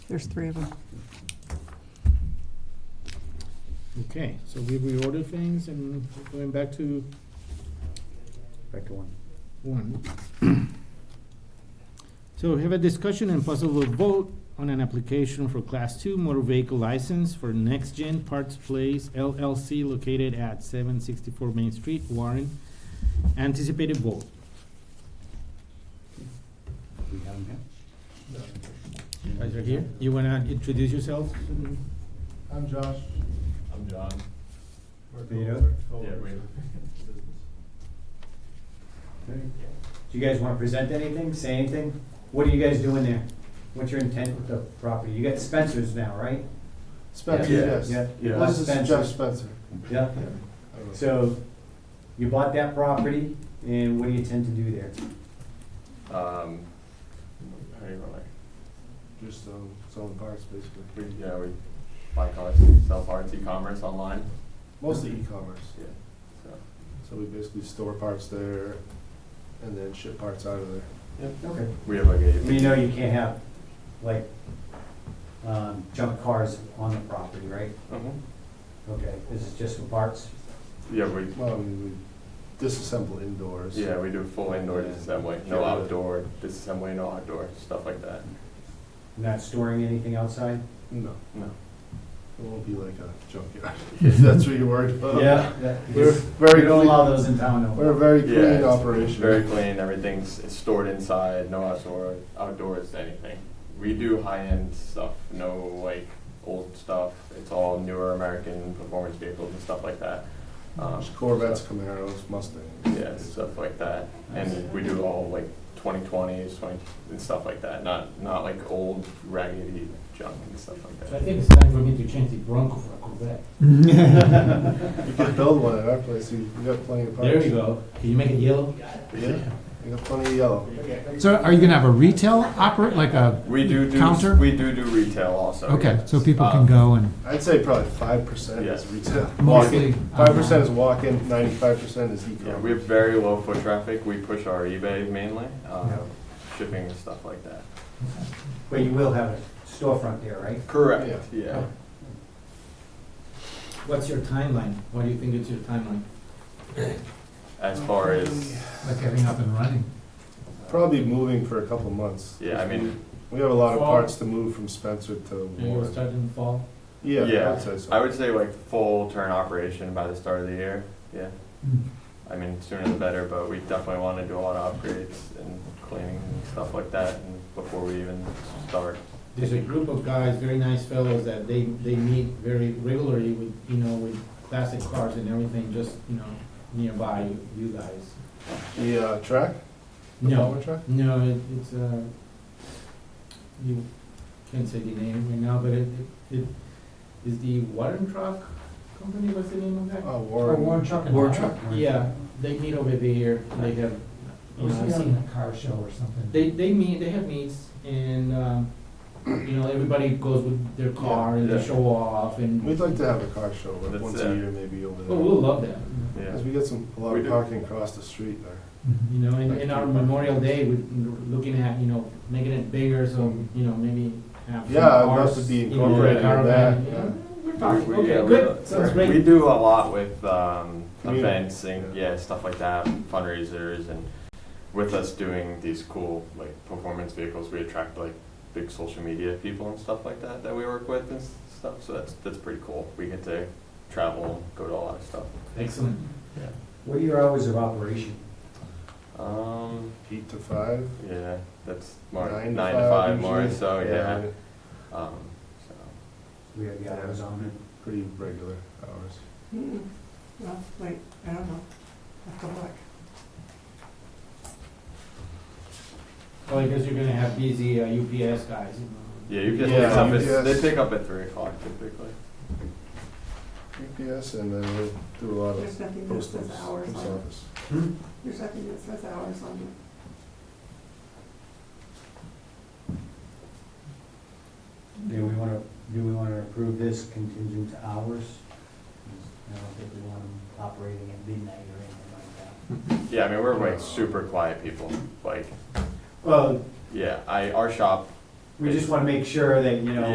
There's three of them. Okay, so we reordered things and going back to Back to one. one. So we have a discussion and possible vote on an application for Class Two motor vehicle license for Next Gen Parts Place LLC located at seven sixty-four Main Street, Warren. Anticipated vote. We have them You Guys are here. You wanna introduce yourself? I'm Josh. I'm John. We're Peter? co- Yeah, co-owners. we're- here. Do you guys wanna present anything, say anything? What are you guys doing there? What's your intent with the property? You got Spencer's now, right? Spencer, Yeah. yes. Yeah. Yeah. This is Spencer. Jeff Spencer. Yeah. So, you bought that property, and what do you intend to do there? Um, how do you run it? Just um, selling parts, basically. We, yeah, we buy cars, sell parts, e-commerce online. Mostly e-commerce. Yeah. So, So we basically store parts there and then ship parts out of there. Okay. we have like a. We know you can't have, like, um, junk cars on the property, right? Mhm. Okay, this is just for parts? Yeah, we, Well, we, we disassemble indoors. yeah, we do full indoor Yeah. disassembly, no Yeah. outdoor disassembly, no outdoor, stuff like that. Not storing anything outside? No, No. it won't be like a junkyard, if that's what you're worried about. that- We're because very We don't clean. allow those in town, no. We're a very Yeah, clean it's operation. Very clean, everything's it's stored inside, no outdoor, outdoors, anything. We do high-end stuff, no like old stuff, it's all newer American performance vehicles and stuff like that. Um, There's Corvettes, Camaros, Mustangs. Yeah, stuff like that. And we do all like 2020s, 20 and stuff like that. Not not like old raggedy junk and stuff like So I that. think it's time for me to change the Bronco for a Corvette. You can build one at our place, you, you got plenty of parts. There we go. Can you make it yellow? Yeah, you got plenty of yellow. So are you gonna have a retail operate, like a, We do do Counter? we do do retail also. okay, yes. so people Um, can go and I'd say probably five percent is Yeah. retail. Mostly Five percent online. is walk-in, ninety-five percent is Yeah, we e-commerce. have very low foot traffic. We push our eBay mainly, um, shipping and stuff like that. But you will have a storefront there, right? Correct. Yeah. What's your timeline? What do you think is your timeline? As far as like getting up and running. Probably moving for a couple months. yeah, I mean, We have a lot of Fall. parts to move from Spencer to Do you Warren. start in the fall? Yeah, Yeah, I'd say so. I would say like full turn operation by the start of the year. Yeah. Hmm. I mean, sooner the better, but we definitely want to do a lot of upgrades and cleaning and stuff like that and before we even start. There's a group of guys, very nice fellows, that they, they meet very regularly with, you know, with classic cars and everything, just, you know, nearby you- you guys. The uh, track? The No, power track? no, it- it's, uh, you can't say the name right now, but it, it- it, is the Warren Truck Company, what's the name of that? Oh, Warren. truck and War hire? truck. Yeah, they meet over there, they have, you know, I've seen- a car show or something. they, they meet, they have meets, and, um, you know, everybody goes with their car and Yeah. they show off, and, We'd like to have a car show like, That's once it. a year, maybe over oh, we'll there. love that, Yeah. Because we get some, a lot We of do. parking across the street there. Mm-hmm. you know, and, and our Memorial Day, we're looking at, you know, making it bigger, so, you know, maybe have some Yeah, I'd love cars, to be you know, incorporated in caravan. that, yeah. We're talking, We- okay, yeah, good, we- sounds We great. do a lot with um, Community. events and yeah, stuff like that, fundraisers, and with us doing these cool like performance vehicles, we attract like big social media people and stuff like that that we work with and s- stuff. So that's that's pretty cool. We get to travel, go to a lot of stuff. Excellent. What are your hours of operation? Um, Eight to five, yeah, that's more nine to five. more. usually. So yeah. Um, so. We have the hours on it. Pretty regular hours. Hmm, Well, wait, I don't know. I have to look. Well, I guess you're gonna have busy uh, UPS guys, you know. Yeah, you can Yeah, pick up at, yes. they pick up at three o'clock typically. GPS and then we'll do a lot of There's nothing that postal says hours post on it. office. There's nothing that says hours on it. Do we want to, do we want to approve this contingent to hours? I don't think we want them operating at midnight or anything like that. Yeah, I mean we're like super quiet people. Like Well, yeah, I our shop we just wanna make sure that, you know,